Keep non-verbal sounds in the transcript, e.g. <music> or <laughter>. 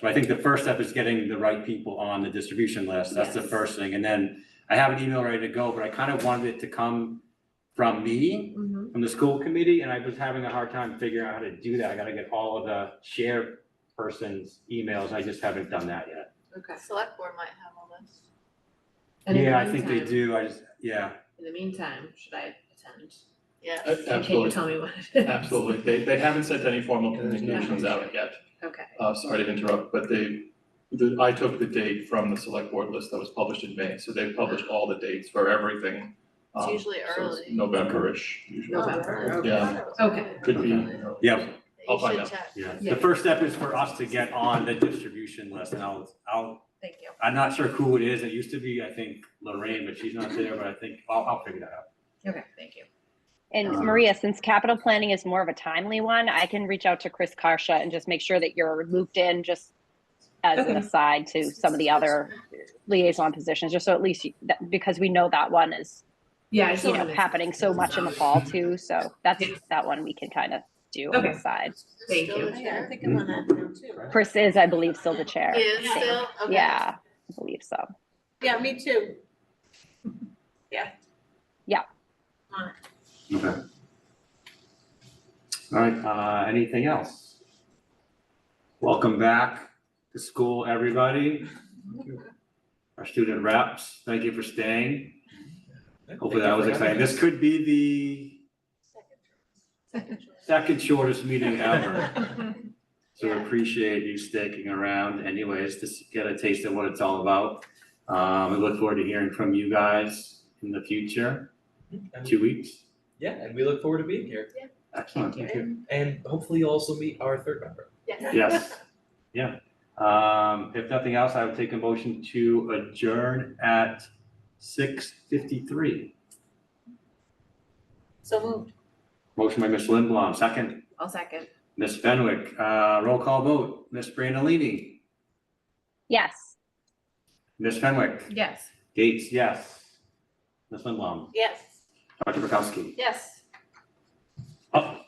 So I think the first step is getting the right people on the distribution list. That's the Yes. first thing. And then I have an email ready to go, but I kind of wanted it to come from me, Mhm. from the school committee, and I was having a hard time figuring out how to do that. I gotta get all of the share person's emails. I just haven't done that yet. Okay. Select board might have all this. And in the Yeah, I think they meantime- do. I just, yeah. In the meantime, should I attend? Yeah. A- And can you Absolutely, tell me what it is? absolutely. They, they haven't sent any formal communications out yet. Okay, Uh, sorry to interrupt, but they, the, I took the date from the select board list that was published in May, so they published all the dates for everything. It's um, usually so it's early. November-ish usually. November, okay. Yeah. Okay. Could be. You Yeah. I'll find should out. check. Yeah. Yeah. The first step is for us to get on the distribution list and I'll, I'll, thank you. I'm not sure who it is. It used to be, I think Lorraine, but she's not there, but I think I'll, I'll figure that out. Okay, thank you. And Uh-huh. Um, Maria, since capital planning is more of a timely one, I can reach out to Chris Karsha and just make sure that you're looped in just as an Okay. aside to some of the other liaison positions, just so at least, you- that- because we know that one is, Yeah, I just you wanna know, make- happening so much in the fall too. So that's, Yeah. that one we can kind of do on the Okay. side. Thank Still you. the chair? think Oh, I'm on that now too. Chris is, I believe, still the chair. He is Yeah. still, okay. Yeah, I believe so. Yeah, me too. Yeah. Yeah. On it. Okay. All right, uh, anything else? Welcome back to school, everybody. Our student reps, thank you for staying. Hopefully that was exciting. This could be the Second choice. second shortest meeting ever. <laughs> So we Yeah. appreciate you sticking around anyways, to s- get a taste of what it's all about. Um, we look forward to hearing from you guys in the future, And- two weeks. Yeah, and we look forward to being here, Excellent. and hopefully you'll also meet our third member. Yes. Yes, <laughs> yeah. Um, if nothing else, I would take a motion to adjourn at six fifty-three. So moved. Motion by Ms. Lindblom, second. <laughs> I'll second. Ms. Fenwick, uh, roll call vote. Ms. Brandalini, Yes. Ms. Fenwick, Yes. Gates, yes. Ms. Lindblom, Yes. Dr. Bukowski. Yes. Oh,